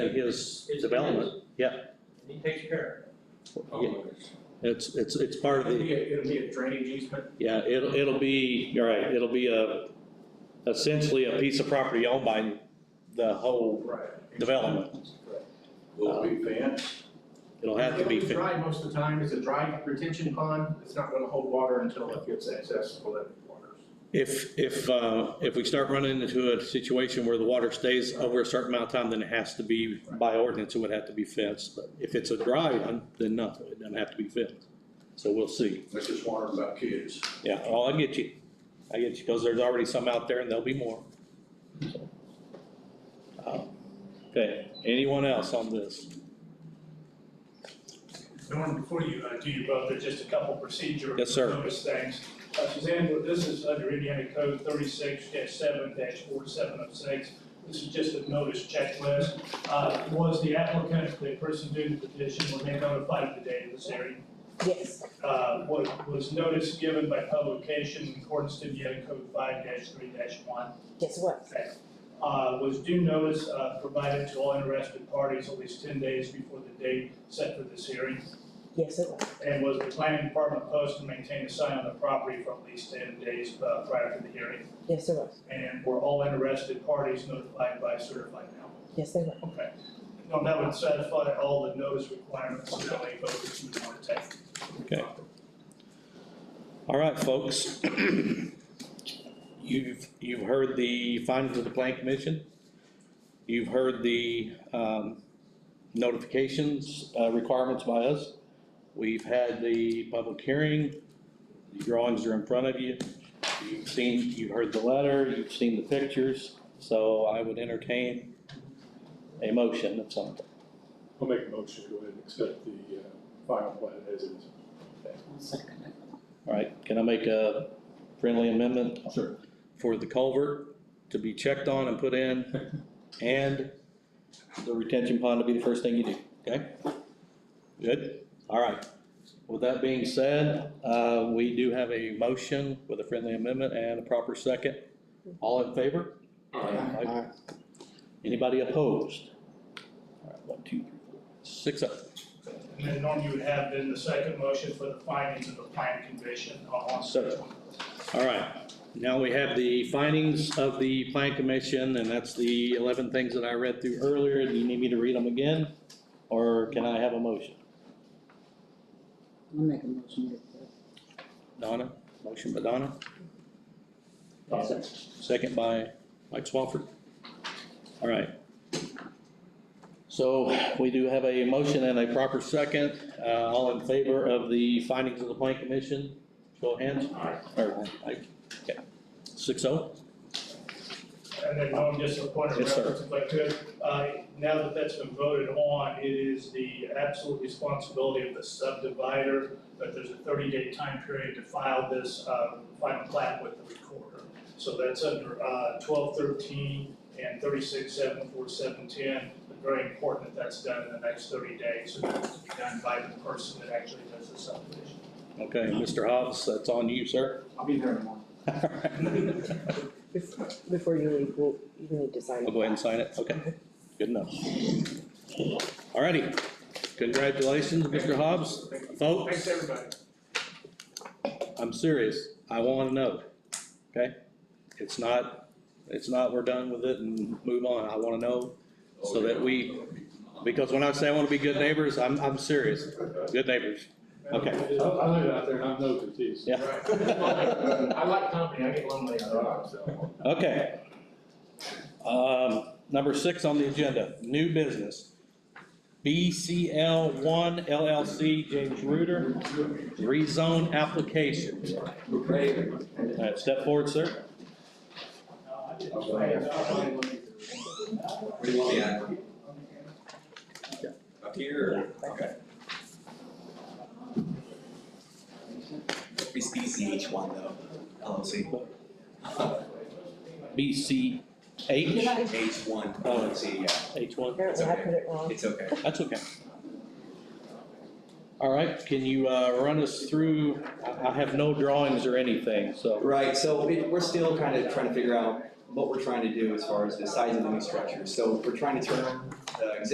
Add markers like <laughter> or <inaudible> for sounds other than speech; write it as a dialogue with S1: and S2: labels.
S1: his
S2: His
S1: development, yeah,
S2: He takes care of
S1: Yeah,
S2: it.
S1: it's, it's, it's part of
S2: It'll
S1: the,
S2: be, a- it'll be a drainage easement,
S1: yeah, it'll, it'll be, you're right, it'll be a, essentially a piece of property owned by the whole
S2: right.
S1: development.
S3: Will it be fenced?
S1: It'll have to be,
S2: It's
S1: fin-
S2: Dry most of the time, it's a dry retention pond, it's not gonna hold water until it gets accessible to waters.
S1: if, if, uh, if we start running into a situation where the water stays over a certain amount of time, then it has to be, by ordinance, it would have to be fenced. But if it's a dry one, then no, it doesn't have to be fenced. So we'll see.
S3: I just wondering about kids.
S1: Yeah, oh, I get you. I get you, because there's already some out there and there'll be more. So. Uh, Okay, anyone else on this?
S4: Norm, before you uh, do your vote, there's just a couple procedural
S1: Yes, sir.
S4: notice things. Uh, Suzanne, well, this is under Indiana Code thirty-six seven four seven oh six. This is just a notice checklist. Uh, Was the applicant, the person doing the petition, were they notified of the date of this hearing?
S5: Yes,
S4: Uh, Was was notice given by publication in accordance to Indiana Code five three one?
S5: yes, it was.
S4: Uh, was due notice, uh, provided to all interested parties at least ten days before the date set for this hearing.
S5: Yes, it was.
S4: And was the planning department posted to maintain a sign on the property for at least ten days uh, prior to the hearing?
S5: Yes, it was.
S4: And were all interested parties notified by certified mail?
S5: Yes, they were.
S4: Okay. Now, that would satisfy all the notice requirements that any voters would want to take.
S1: Okay. All right, folks. <clears throat> You've, you've heard the findings of the plan commission. You've heard the, um, notifications, uh, requirements by us. We've had the public hearing. The drawings are in front of you. You've seen, you've heard the letter, you've seen the pictures, so I would entertain a motion of some kind.
S6: I'll make a motion to go ahead and accept the uh, final plan as it is.
S1: All right, can I make a friendly amendment?
S6: Sure.
S1: for the culvert to be checked on and put in, and the retention pond to be the first thing you do, okay? Good, all right. With that being said, uh, we do have a motion with a friendly amendment and a proper second. All in favor? Aye. Anybody opposed? All right, one, two, three, four, six up.
S4: And then Norm, you would have then the second motion for the findings of the plan commission on
S1: Sir. All right, now we have the findings of the plan commission, and that's the eleven things that I read through earlier. Do you need me to read them again? Or can I have a motion?
S7: I'll make a motion to accept.
S1: Donna, motion by Donna, second by Mike Swafford. All right. So we do have a motion and a proper second. Uh, all in favor of the findings of the plan commission? Show of hands. Or, like, okay. Six oh?
S4: And then Norm, just a point of
S1: Yes, sir.
S4: reference, if I could, uh, now that that's been voted on, it is the absolute responsibility of the subdivider, but there's a thirty-day time period to file this, uh, final plat with the recorder. So that's under, uh, twelve thirteen and thirty-six seven four seven ten, but very important that that's done in the next thirty days, so that it's be done by the person that actually does the subdivision.
S1: Okay, Mr. Hobbs, that's on you, sir.
S2: I'll be there
S1: <laughs>
S2: tomorrow.
S5: Before, before you leave, we'll, you need to sign.
S1: I'll go ahead and sign it, okay, good enough. Alrighty, congratulations, Mr. Hobbs.
S4: Thanks,
S1: Folks,
S4: everybody.
S1: I'm serious, I wanna know, okay? It's not, it's not we're done with it and move on, I wanna know, so that we, because when I say I wanna be good neighbors, I'm, I'm serious, good neighbors, okay,
S6: I I live out there and I'm no confused.
S1: yeah.
S2: Right. <laughs> I like company, I get lonely on the road, so.
S1: Okay. Um, number six on the agenda, new business. BCL one LLC, James Reuter, rezone application. All right, step forward, sir.
S8: What do you want me at? Up here? Okay. It's BCH one though, LLC.
S1: BCH,
S5: Did I,
S8: H one, LLC, yeah,
S1: H one,
S5: apparently I put it wrong.
S8: it's okay.
S1: that's okay. All right, can you, uh, run us through, I, I have no drawings or anything, so.
S8: Right, so we, we're still kind of trying to figure out what we're trying to do as far as the size of the new structure. So we're trying to turn the existing